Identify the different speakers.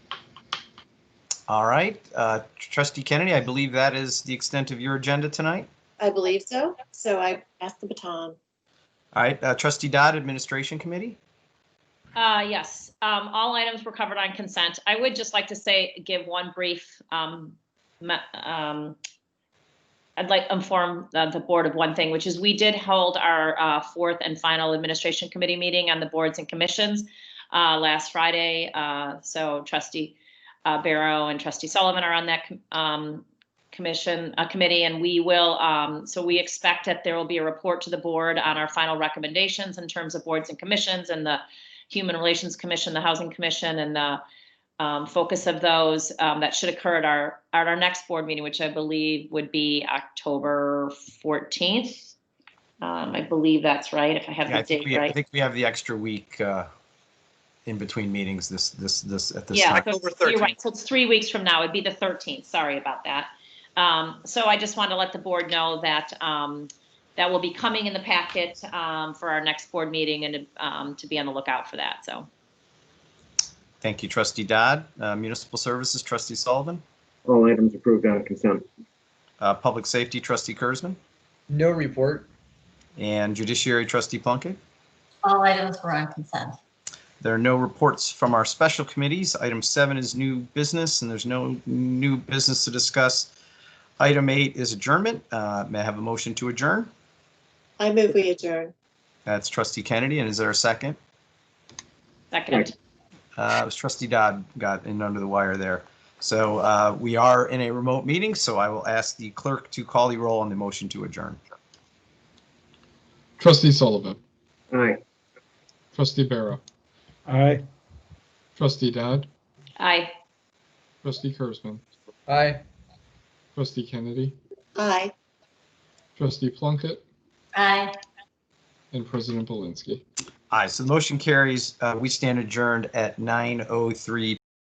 Speaker 1: All right, uh, trustee Kennedy, I believe that is the extent of your agenda tonight.
Speaker 2: I believe so. So I pass the baton.
Speaker 1: All right, uh, trustee Dodd, Administration Committee.
Speaker 3: Uh, yes, um, all items were covered on consent. I would just like to say, give one brief, um, me- um, I'd like inform uh, the board of one thing, which is we did hold our, uh, fourth and final administration committee meeting on the boards and commissions, uh, last Friday. Uh, so trustee, uh, Barrow and trustee Sullivan are on that, com- um, commission, uh, committee, and we will, um, so we expect that there will be a report to the board on our final recommendations in terms of boards and commissions and the Human Relations Commission, the Housing Commission, and the um, focus of those um, that should occur at our, at our next board meeting, which I believe would be October 14th. Um, I believe that's right, if I have
Speaker 1: Yeah, I
Speaker 3: the
Speaker 1: think
Speaker 3: date
Speaker 1: we, I
Speaker 3: right.
Speaker 1: think we have the extra week uh, in between meetings this, this, this, at this
Speaker 3: Yeah,
Speaker 1: time.
Speaker 3: so it's- you're right, so it's three weeks from now, it'd be the 13th, sorry about that. Um, So I just wanted to let the board know that, um, that will be coming in the packet um, for our next board meeting and um, to be on the lookout for that, so.
Speaker 1: Thank you, trustee Dodd. Uh, Municipal Services, trustee Sullivan.
Speaker 4: All items approved on consent.
Speaker 1: Uh, Public Safety, trustee Kurzman.
Speaker 5: No report.
Speaker 1: And Judiciary, trustee Plunkett.
Speaker 6: All items were on consent.
Speaker 1: There are no reports from our special committees. Item seven is new business, and there's no new business to discuss. Item eight is adjournment. Uh, May I have a motion to adjourn?
Speaker 2: I move we adjourn.
Speaker 1: That's trustee Kennedy, and is there a second?
Speaker 3: Second,
Speaker 1: Uh, It was trustee Dodd got in under the wire there. So uh, we are in a remote meeting, so I will ask the clerk to call the roll on the motion to adjourn.
Speaker 7: Trustee Sullivan.
Speaker 4: Aye.
Speaker 7: Trustee Barrow.
Speaker 8: Aye.
Speaker 7: Trustee Dodd.
Speaker 3: aye.
Speaker 7: Trustee Kurzman.
Speaker 5: Aye.
Speaker 7: Trustee Kennedy.
Speaker 2: Aye.
Speaker 7: Trustee Plunkett.
Speaker 6: Aye.
Speaker 7: And President Belinsky.
Speaker 1: Aye, so the motion carries. Uh, We stand adjourned at 9:03